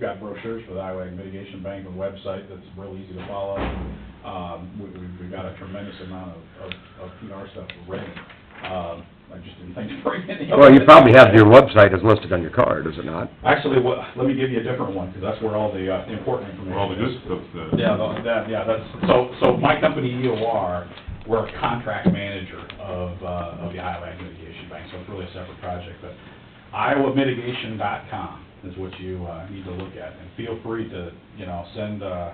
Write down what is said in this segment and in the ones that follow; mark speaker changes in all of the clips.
Speaker 1: got brochures for the Iowa Ag Mitigation Bank, a website that's real easy to follow. Um, we, we, we got a tremendous amount of, of, of PR stuff ready. Um, I just didn't think to bring any. of
Speaker 2: Well, you
Speaker 1: it.
Speaker 2: probably have your website is listed on your card, is it not?
Speaker 1: Actually, what, let me give you a different one, because that's where all the, uh, important information is.
Speaker 3: Where all the good stuff's at.
Speaker 1: Yeah, tha- that, yeah, that's, so, so my company, EOR, we're a contract manager of, uh, of the Iowa Ag Mitigation Bank, so it's really a separate project, but iowamitigation.com is what you, uh, need to look at, and feel free to, you know, send, uh,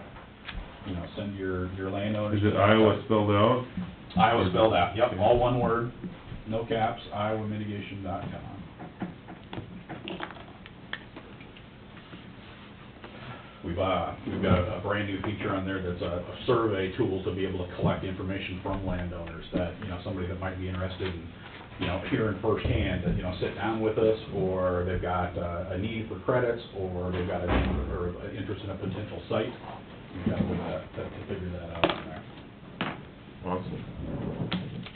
Speaker 1: you know, send your, your landowners.
Speaker 3: Is it Iowa spelled out?
Speaker 1: Iowa spelled out, yep, all one word, no caps, iowamitigation.com. We've, uh, we've got a brand-new feature on there that's a a survey tool to be able to collect information from landowners that, you know, somebody that might be interested in, you know, hearing firsthand, that, you know, sit down with us, or they've got uh, a need for credits, or they've got a, need for- or an interest in a potential site. We've got a way to, to figure that out on there.
Speaker 3: Awesome.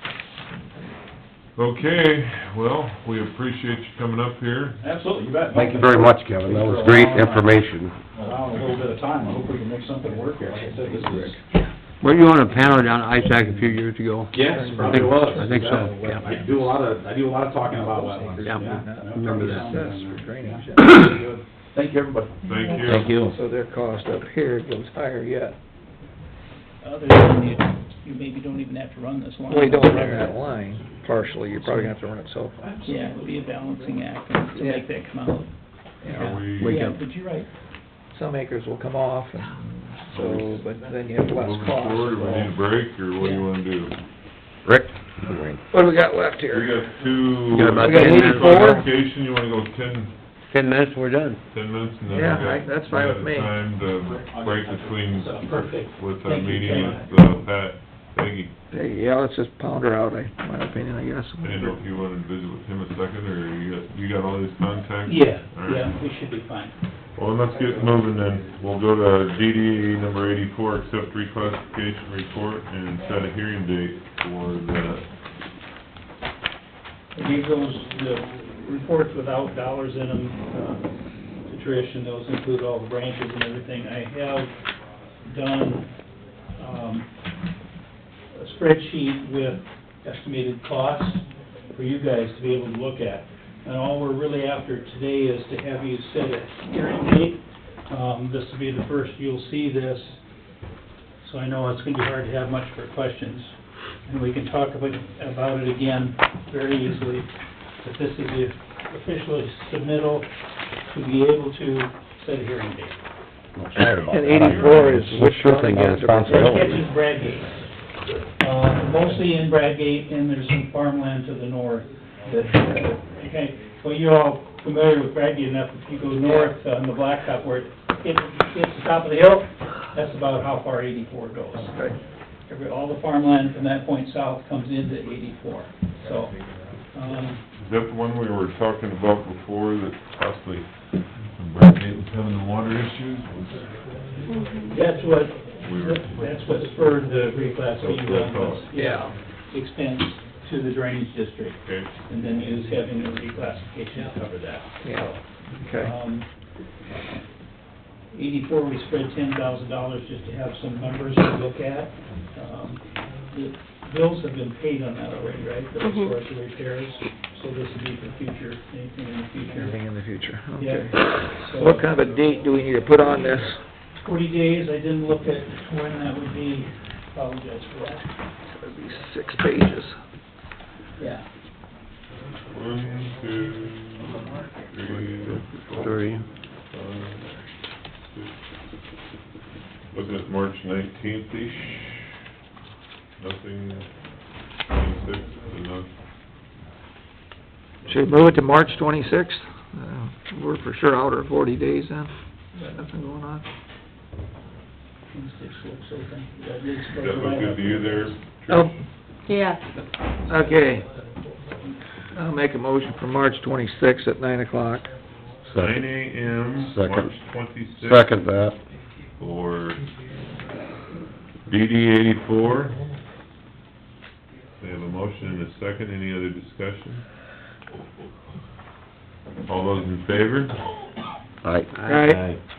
Speaker 3: Okay, well, we appreciate you coming up here.
Speaker 1: Absolutely, you bet.
Speaker 2: Thank you very much, Kevin, that was great information.
Speaker 1: Allow a little bit of time, I hope we can make something work here, like I said, this is.
Speaker 4: Were you on a panel down at ISAC a few years ago?
Speaker 1: Yes,
Speaker 4: probably was. I think so, yeah.
Speaker 1: I do a lot of, I do a lot of talking about wetlands.
Speaker 4: Yeah. Remember that.
Speaker 1: that. Thank you, everybody.
Speaker 3: Thank you.
Speaker 4: Thank you.
Speaker 5: So their cost up here goes higher yet.
Speaker 6: Other than you, you maybe don't even have to run this line.
Speaker 5: We don't run that line partially, you're probably gonna have to run it self.
Speaker 6: Yeah, it would be a balancing act and to make that come out.
Speaker 3: Are
Speaker 4: Wake
Speaker 3: we
Speaker 6: Yeah,
Speaker 4: up.
Speaker 6: but you're right.
Speaker 5: Some acres will come off, and so, but then you have less
Speaker 3: moving
Speaker 5: cost.
Speaker 3: forward, we need a break, or what do you wanna do?
Speaker 2: Rick?
Speaker 5: What do we got left
Speaker 3: We
Speaker 5: here?
Speaker 3: got two.
Speaker 2: We got about
Speaker 5: We got 10 minutes. 84?
Speaker 3: Application, you wanna go ten,
Speaker 4: Ten minutes, we're done.
Speaker 3: ten minutes, and then we
Speaker 5: Yeah,
Speaker 3: got-
Speaker 5: I- that's fine
Speaker 3: we
Speaker 5: with
Speaker 3: got
Speaker 5: me.
Speaker 3: Time to break between,
Speaker 1: So, perfect.
Speaker 3: with our
Speaker 6: Thank you,
Speaker 3: meeting
Speaker 6: Ken.
Speaker 3: with, uh, Pat, Peggy.
Speaker 5: Hey, Yeah, let's just pound her out, I, my opinion, I guess.
Speaker 3: I didn't know if you wanted to visit with him a second, or you got, you got all his contacts?
Speaker 6: Yeah,
Speaker 3: All right.
Speaker 6: yeah, we should be fine.
Speaker 3: Well, let's get moving then. We'll go to DDA number eighty-four, accept reclassification report and set a hearing date for the,
Speaker 7: I gave those, the reports without dollars in them, uh, to Trish, and those include all the branches and everything. I have done, um, a spreadsheet with estimated costs for you guys to be able to look at. And all we're really after today is to have you set a hearing date. Um, this will be the first you'll see this, so I know it's gonna be hard to have much for questions. And we can talk about, about it again very easily. But this is the official submittal to be able to set a hearing date.
Speaker 5: And eighty-four is
Speaker 2: Well,
Speaker 5: which
Speaker 2: sure
Speaker 5: one?
Speaker 2: thing, yeah, it's possible.
Speaker 7: That catches Bradgate, uh, mostly in Bradgate, and there's some farmland to the north. that- Okay, well, you're all familiar with Bradgate enough, if you go north uh, on the blacktop where it hits hits the top of the hill, that's about how far eighty-four goes.
Speaker 5: Okay.
Speaker 7: Every, all the farmland from that point south comes into eighty-four, so, um,
Speaker 3: is that the one we were talking about before that possibly Brad Gate was having the water issues?
Speaker 7: that's what,
Speaker 3: We were-
Speaker 7: that's what spurred the reclass being done, was,
Speaker 5: Yeah.
Speaker 7: expense to the drainage district.
Speaker 3: Okay,
Speaker 7: and then use having a reclassification to cover that.
Speaker 5: Yeah, okay.
Speaker 7: Um, Eighty-four, we spread ten thousand dollars just to have some numbers to look at. Um, The bills have been paid on that already, right? The restores and repairs, so this would be for future, anything in the future.
Speaker 5: Anything in the future, okay.
Speaker 7: Yeah. So-
Speaker 5: What kind of a date do we need to put on this?
Speaker 7: Forty days, I didn't look at when that would be, apologize for that.
Speaker 5: That'd be six pages.
Speaker 7: Yeah.
Speaker 3: one, two, three, four,
Speaker 4: Three.
Speaker 3: five, six. Wasn't it March nineteenth-ish? Nothing, twenty-sixth, enough.
Speaker 5: Should we move it to March twenty-sixth? Uh, we're for sure out of forty days then, nothing going on.
Speaker 7: Twenty-six looks open. That is-
Speaker 3: Does that look good to you there?
Speaker 5: Oh,
Speaker 8: Yeah.
Speaker 5: okay. I'll make a motion for March twenty-sixth at nine o'clock.
Speaker 3: Nine AM,
Speaker 2: Second.
Speaker 3: March twenty-sixth.
Speaker 2: Second that.
Speaker 3: For DD eighty-four. We have a motion and a second, any other discussion? All those in favor?
Speaker 2: All right.
Speaker 5: Aye.